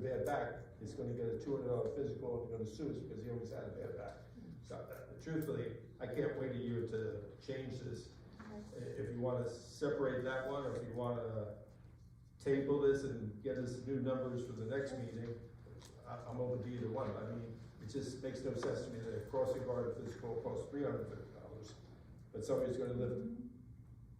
bad back, is gonna get a two hundred dollar physical and they're gonna sue us because he always had a bad back. So uh, truthfully, I can't wait a year to change this. I- If you wanna separate that one, or if you wanna table this and get us new numbers for the next meeting, I, I'm open to either one. I mean, it just makes no sense to me that a crossing guard physical costs three hundred fifty dollars, but somebody's gonna lift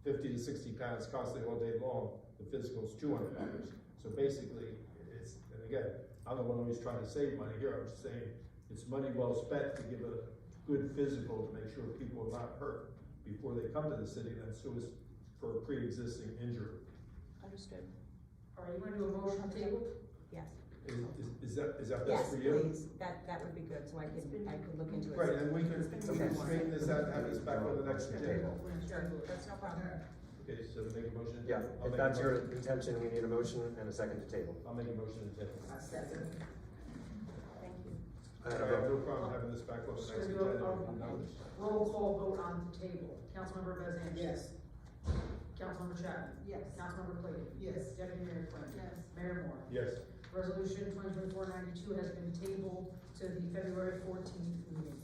fifty to sixty pounds constantly all day long, the physical's two hundred dollars. So basically, it's, and again, I'm the one always trying to save money here, I'm just saying, it's money well spent to give a good physical to make sure people are not hurt before they come to the city, and sue us for a pre-existing injury. Understood, All right, you wanna do a motion to table? yes. Is, is- is that, is that Yes, best for you? please, that, that would be good, so I can, I could look into it. Right, and we can, It's we been can more. straighten this out, have this back on the next agenda. Sure, that's no problem. Okay, so make a motion? Yeah, I'll if make a that's your motion. intention, we need a motion and a second to table. I'll make a motion to table. Thank you. I I have have a vote. no problem having this back on the next Sure, agenda. no problem. Roll call vote on the table. Councilmember Bez Anderson. Yes. Councilmember Chapman. Yes. Councilmember Clayton. Yes. Deputy Mayor Quinn. Yes. Mayor Moore. Yes, Resolution twenty twenty-four ninety-two has been tabled to the February fourteenth meeting.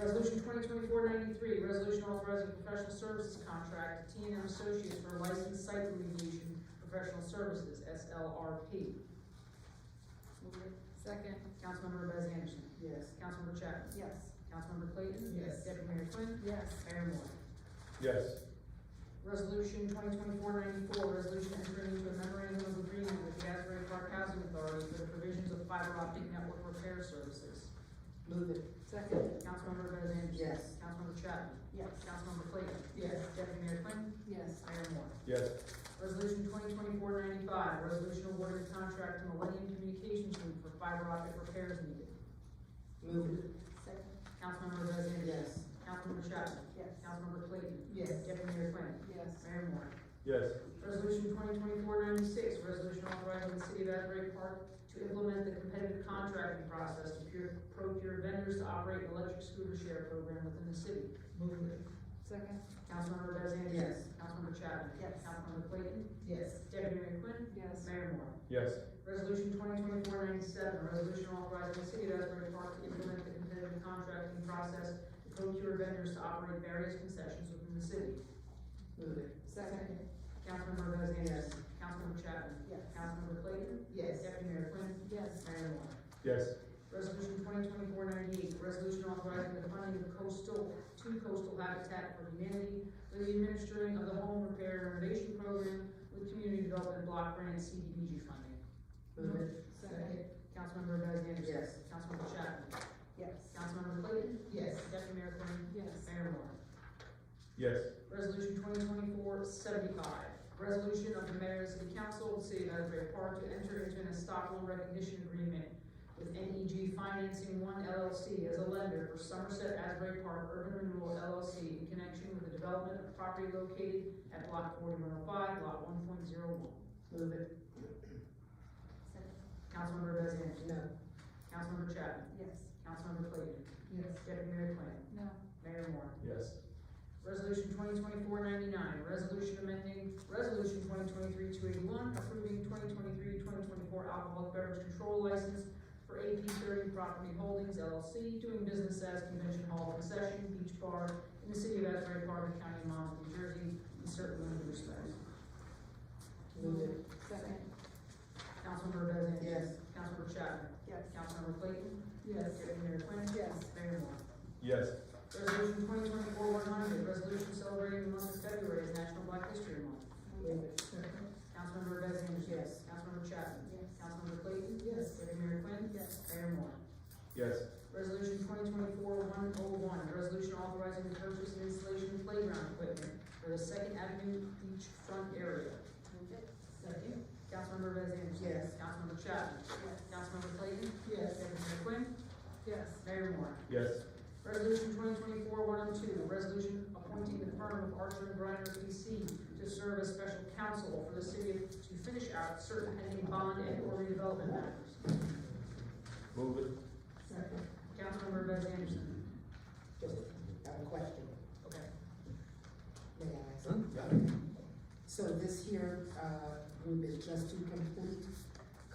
Resolution twenty twenty-four ninety-three, resolution authorizing professional services contract, T and M Associates for licensed site remediation professional services, SLRP. Second. Councilmember Bez Anderson. Yes. Councilmember Chapman. Yes. Councilmember Clayton. Yes. Deputy Mayor Quinn. Yes. Mayor Moore. yes, Resolution 2024-94, resolution entering into a memorandum of agreement with the Asbury Park Housing Authority for the provisions of fiber optic network repair services. Move it. Second. Councilmember Bez Anderson. Yes. Councilmember Chapman. Yes. Councilmember Clayton. Yes. Deputy Mayor Quinn. Yes. Mayor Moore. yes, Resolution 2024-95, resolution awarding contract to Millennium Communications Group for fiber optic repairs needed. Move it. Second. Councilmember Bez Anderson. Yes. Councilmember Chapman. Yes. Councilmember Clayton. Yes. Deputy Mayor Quinn. Yes. Mayor Moore. yes, Resolution 2024-96, resolution authorizing the city of Asbury Park to implement the competitive contracting process to procure- procure vendors to operate an electric scooter share program within the city. Move it. Second. Councilmember Bez Anderson. Yes. Councilmember Chapman. Yes. Councilmember Clayton. Yes. Deputy Mayor Quinn. Yes. Mayor Moore. yes, Resolution 2024-97, resolution authorizing the city of Asbury Park to implement the competitive contracting process to procure vendors to operate various concessions within the city. Move it. Second. Councilmember Bez Yes. Anderson. Councilmember Chapman. Yes. Councilmember Clayton. Yes. Deputy Mayor Quinn. Yes. Mayor Moore. yes, Resolution 2024-98, resolution authorizing the funding of coastal, to coastal habitat for humanity through the administering of the home repair and renovation program with community development block grant CDBG funding. Move it. Second. Councilmember Bez Anderson. Yes. Councilmember Chapman. Yes. Councilmember Clayton. Yes. Deputy Mayor Quinn. Yes. Mayor Moore. yes, Resolution 2024-75, resolution of the mayor and city council of the city of Asbury Park to enter into an Estoppel recognition agreement with NEG Financing One LLC as a lender for Somerset Asbury Park Urban Renewal LLC in connection with the development of property located at block 4105, lot 1.01. Move it. Councilmember Bez Anderson. No. Councilmember Chapman. Yes. Councilmember Clayton. Yes. Deputy Mayor Quinn. No. Mayor Moore. yes, Resolution 2024-99, resolution amending, resolution 2023-281, approving 2023-2024 alcoholic beverage control license for AP thirty Property Holdings LLC, doing business as Convention Hall Concession Beach Bar in the city of Asbury Park, and County of Monmouth, New Jersey, in certain limited respects. Move it. Second. Councilmember Bez Anderson. Yes. Councilmember Chapman. Yes. Councilmember Clayton. Yes. Deputy Mayor Quinn. Yes. Mayor Moore. yes, Resolution 2024-100, resolution celebrating the month of February as National Black History Month. Move it. Second. Councilmember Bez Anderson. Yes. Councilmember Chapman. Yes. Councilmember Clayton. Yes. Deputy Mayor Quinn. Yes. Mayor Moore. yes, Resolution twenty twenty-four one oh one, resolution authorizing the purchase and installation of playground equipment for the Second Avenue Beach Front Area. Move it. Second. Councilmember Bez Anderson. Yes. Councilmember Chapman. Councilmember Clayton. Yes. Deputy Mayor Quinn. Yes. Mayor Moore. yes, Resolution twenty twenty-four one oh two, resolution appointing the firm of Archer and Briner PC to serve as special counsel for the city to finish out certain pending bond and or redevelopment matters. move it, Second. Councilmember Bez Anderson. Just have a question, Okay. may I ask? So this here, uh, group is just to complete